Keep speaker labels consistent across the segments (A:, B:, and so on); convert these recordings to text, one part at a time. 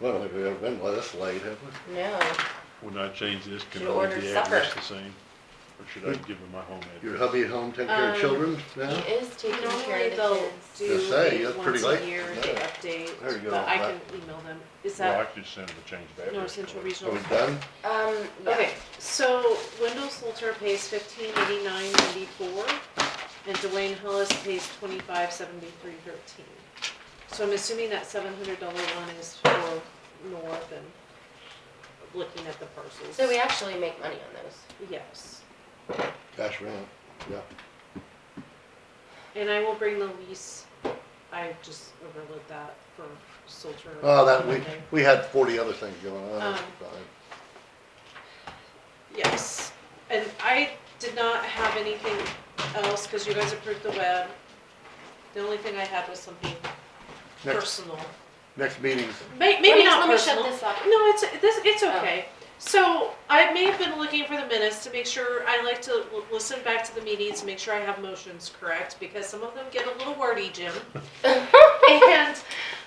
A: I don't think we've ever been this late, have we?
B: No,
C: When I change this, can
B: She
C: I leave
B: ordered
C: the address
B: supper.
C: the same? Or should I give her my home
A: Your
C: address?
A: hubby at home taking care of
B: Um,
A: children now?
B: he is taking care
D: Normally
B: of the
D: they'll
B: kids.
D: do
A: Just say,
D: it
A: that's pretty
D: once
A: late
D: a year,
A: for
D: they
A: that.
D: update,
A: There you go,
D: but I can
A: that-
D: email them. Is
C: Well, I
D: that
C: could send them a change of address.
D: North Central
A: Are
C: card.
D: Regional?
A: we done?
B: Um, yeah.
D: Okay, so Wendell Salter pays fifteen eighty-nine ninety-four, and Dwayne Hollis pays twenty-five seventy-three thirteen. So I'm assuming that seven hundred dollar one is for North and looking at the parcels.
B: So we actually make money on those.
D: Yes,
A: Cash rent, yeah.
D: and I will bring the lease, I just overlooked that for Salter.
A: Oh, that, we,
D: Monday.
A: we had forty other things going on, that's
D: Um,
A: fine.
D: Yes, and I did not have anything else, cause you guys approved the web. The only thing I had was something
A: Next,
D: personal.
A: next meeting's,
D: May, maybe
B: Let me-
D: not
B: Let me
D: personal.
B: shut this Oh. off.
D: No, it's, this, it's okay. So I may have been looking for the minutes to make sure, I like to l- listen back to the meetings, make sure I have motions correct, because some of them get a little wordy, Jim. And,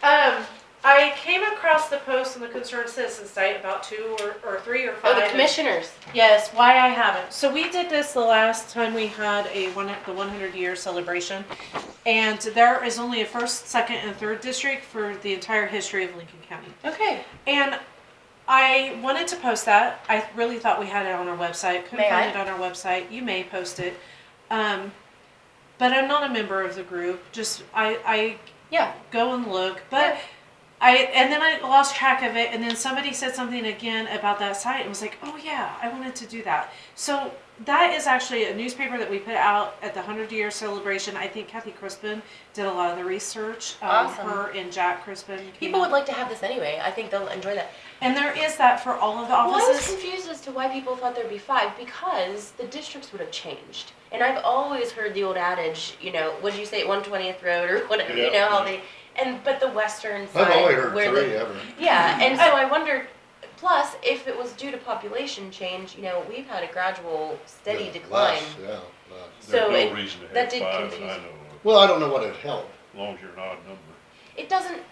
D: um, I came across the post on the Concerned Citizen site about two or, or three or five.
B: Oh, the
D: and-
B: commissioners.
D: Yes, why I haven't. So we did this the last time we had a one, the one hundred year celebration. And there is only a first, second, and third district for the entire history of Lincoln County.
B: Okay.
D: And I wanted to post that. I really thought we had it on our website. Couldn't
B: May
D: find
B: I?
D: it on our website. You may post it. Um, but I'm not a member of the group. Just I, I
B: Yeah.
D: go and look. But I and then I lost track of it. And then somebody said something again about that site. and was like, oh yeah, I wanted to do that. So that is actually a newspaper that we put out at the hundred year celebration. I think Kathy Crispin did a lot of the research. Um,
B: Awesome.
D: Her and Jack Crispin. came
B: People
D: up-
B: would like to have this anyway. I think they'll enjoy that.
D: and there is that for all of the
B: Well, I was
D: offices.
B: confused as to why people thought there'd be five because the districts would have changed. And I've always heard the old adage, you know, what'd you say, 120th Road or whatever, you
A: Yeah.
B: know, how they, and, but the western side.
A: I've only heard
B: where
A: three
B: the-
A: ever.
B: Yeah, and so I wondered, plus, if it was due to population change, you know, we've had a gradual, steady
A: Yeah,
B: decline.
A: less, Yeah, less.
B: So
C: There's
B: it-
C: no reason to
B: that
C: have
B: did
C: five that I
B: confuse
C: know of,
A: Well, I don't know what it helped.
C: as long as you're an odd number.
B: It doesn't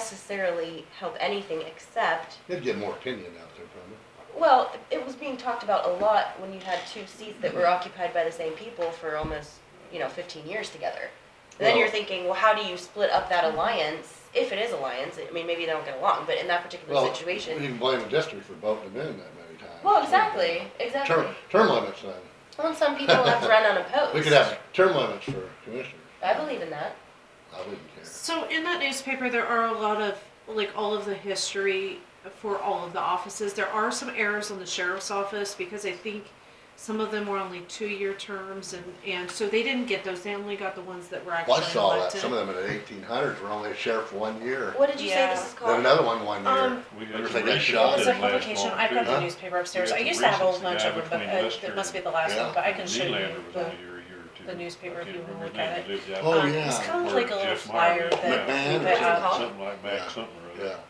B: necessarily help anything except,
A: It'd get more opinion out there from it.
B: well, it was being talked about a lot when you had two seats that
A: Mm-hmm.
B: were occupied by the same people for almost, you know, fifteen years together. And then you're
A: Well-
B: thinking, well, how do you split up that alliance, if it is alliance, I mean, maybe they don't get along, but in that particular
A: Well, You
B: situation.
A: can blame the district for voting them in that many times.
B: Well, exactly, exactly.
A: Term, term limits then.
B: Well, and some people have run unopposed.
A: We could have term limits for commissioners.
B: I believe in that.
A: I wouldn't care.
D: So in that newspaper, there are a lot of like all of the history for all of the offices. There are some errors on the sheriff's office because I think some of them were only two-year terms, and and so they didn't get those. They only got the ones that were actually
A: Well, I saw that,
D: elected.
A: some of them in the eighteen hundreds were only sheriff for one year,
B: What did you say this
D: Yeah.
B: is
A: then
B: called?
A: another one one year.
D: Um,
C: We
A: Wonder
C: had
A: if
C: some
A: they got
C: recent
A: shot.
D: It
C: did
D: was a
C: last
D: publication.
C: long,
D: I've got
C: too.
D: the
A: Huh?
D: newspaper upstairs.
C: We
D: I
C: had
D: used
C: some
D: to have a whole
C: recent
D: bunch
C: guy
D: of them, but
C: between
D: uh,
C: Lester
D: it must be
C: and-
D: the last
A: Yeah.
D: one, but I can show you
C: Nylander was
D: the.
C: only here a year or two.
D: the newspaper
C: I can't
D: if you
C: remember
D: look
C: his name.
D: at
C: He lived out-
A: Oh,
D: um, It's
A: yeah.
D: kind of
C: Where
D: like a little
C: Jeff Meyer
D: flyer
C: lived.
D: that.
A: McMahon or
D: that,
B: something.
C: Something
D: uh,
C: like
A: Yeah.
C: Mac, something or other.
A: Yeah,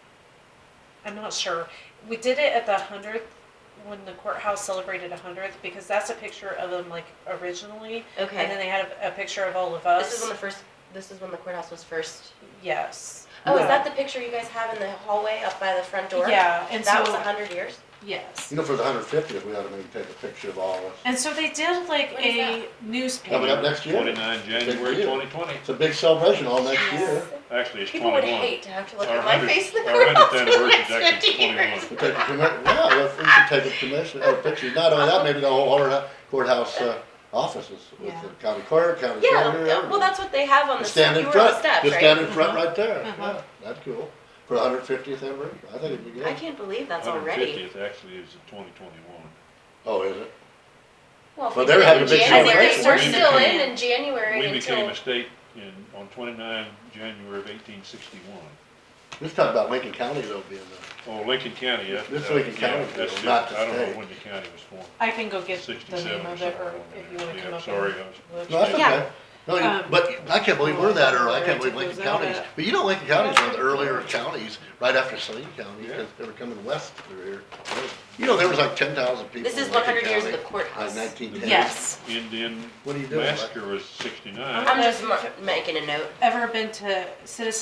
D: I'm not sure. We did it at the hundredth when the courthouse celebrated a hundredth because that's a picture of them like originally, and then
B: Okay.
D: they had a, a picture of all of us.
B: This is when the first, this is when the courthouse was first.
D: yes.
B: Oh, is
D: Yeah.
B: that the picture you guys have in the hallway up by the front door?
D: Yeah, and
B: That was
D: so
B: a hundred years?
D: yes,
A: you know, for the hundred fiftieth, we ought to maybe take a picture of all of us.
D: and so they did like
B: When is
D: a
A: Coming up
D: newspaper.
A: next year.
C: Twenty-nine January
A: year.
C: twenty twenty,
A: It's a big celebration all next
D: Yes.
A: year.
C: actually it's
B: People would
C: twenty-one.
B: hate to have to look
C: Our
B: at my
C: 100
B: face in the
C: our 100th
B: courthouse for the
C: anniversary
B: next
C: is actually
B: fifty years.
C: 21.
A: We take a commi- yeah, we- we should take a commission, or a picture, not only that, maybe the whole courthouse- courthouse uh, offices with the county clerk, county
B: Yeah,
A: treasurer.
B: yeah, well,
A: everybody.
B: that's what they have on the,
A: Just
B: step-
A: Stand
B: you
A: in
B: were on the
A: front,
B: steps,
A: just stand
B: right? Mm-hmm.
A: in front right there,
D: Uh-huh.
A: yeah, that's cool, for the hundred fiftieth anniversary, I think it'd be
B: I
A: good.
B: can't believe that's
C: Hundred
B: already.
C: fiftieth actually is in twenty twenty-one.
A: Oh, is it?
B: Well, if
A: Well,
B: we
A: they're
B: did it
A: having
B: in
A: a big
B: January,
A: celebration.
B: we're
C: We
B: still in
C: became-
B: in January
C: We became
B: until,
C: a state in, on twenty-nine January of eighteen sixty-one.
A: Let's talk about Lincoln County though being the,
C: Oh, Lincoln County, that's.
A: This
C: uh,
A: Lincoln
C: yeah,
A: County,
C: that's
A: though, not
C: different.
A: the
C: I don't
A: state.
C: know when the county was formed,
D: I can go get the
C: sixty-seven
D: name
C: or
D: of
C: something.
D: it, or
C: along
D: if
C: there.
D: you want to
C: Yeah,
D: come up.
C: Sorry,
D: and
C: I was.
D: look.
A: no, that's
D: Yeah.
A: okay. No, you-
D: Um,
A: but I can't believe we're that early, I can't
D: Alright,
A: believe Lincoln
D: goes out
A: County's,
D: at-
A: but you know Lincoln County's one of the earlier counties, right after Saline County,
C: Yeah.
A: because they were coming west through here. You know, there was like ten thousand people
B: this
A: in
B: is one
A: Lincoln
B: hundred years of
A: County.
B: the courthouse.
A: nineteen ten.
D: Yes.
C: Indian
A: What are you doing?
D: Oh,
C: massacre was sixty-nine.
B: I'm just mar- making a note.
D: Ever been to Citizen